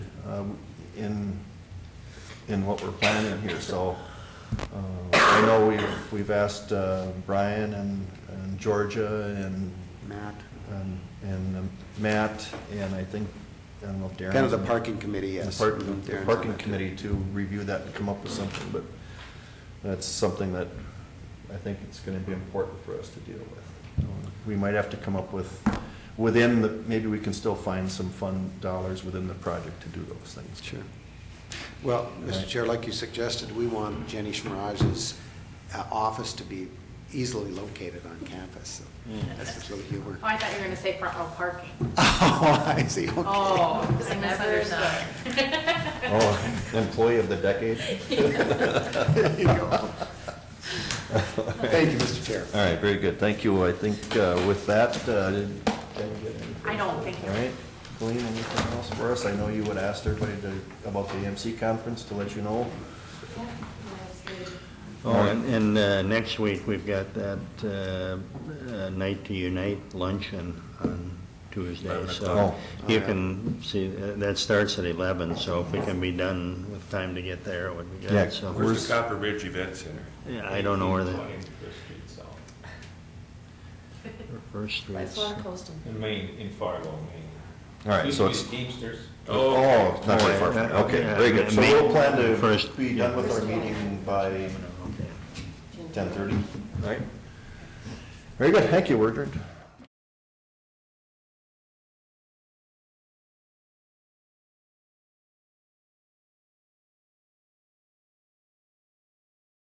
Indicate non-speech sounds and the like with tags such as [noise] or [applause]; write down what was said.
um, in, in what we're planning here, so. uh, I know we've, we've asked uh, Brian and and Georgia and, Matt. and- and um, Matt, and I think, I don't know if Darren. Kind of the parking committee, yes. the parking, the Darren's on parking that too. committee to review that and come up with something, but that's something that I think it's gonna be important for us to deal with. We might have to come up with, within the, maybe we can still find some fund dollars within the project to do those things. Sure. Well, Mr. Right. Chair, like you suggested, we want Jenny Schmirage's uh, office to be easily located on campus. So That's just a little [laughs] humor. Oh, I thought you were gonna say front row parking. Oh, I see, okay. Oh, I I misunderstood. Oh, [laughs] employee of the decade? There you go. Thank you, Mr. Chair. All right, very good, thank you. I think uh, with that, uh, did- did you get anything? I don't think All right, Colleen, anything else for us? I know you would ask everybody to, about the AMC conference to let you know. Oh, and, and uh, next week, we've got that uh, uh, Night to Unite luncheon on Tuesday, so o'clock. you can see, uh, that starts at 11, so if we can be done with time to get there, it would be Yeah. good, so. Where's- Where's the Copper Ridge Event Center? Yeah, I don't know where that- 1820 First Street By First South. streets. Florida Coastal. In Maine, in Fargo, Maine. All right, Used so to be it's, the Teamsters. oh, it's not All very right, far, from that- here. okay, yeah, very good. So May- we'll plan to first- be done with our meeting by Okay. ten thirty, right? Very good, thank you, we're adjourned.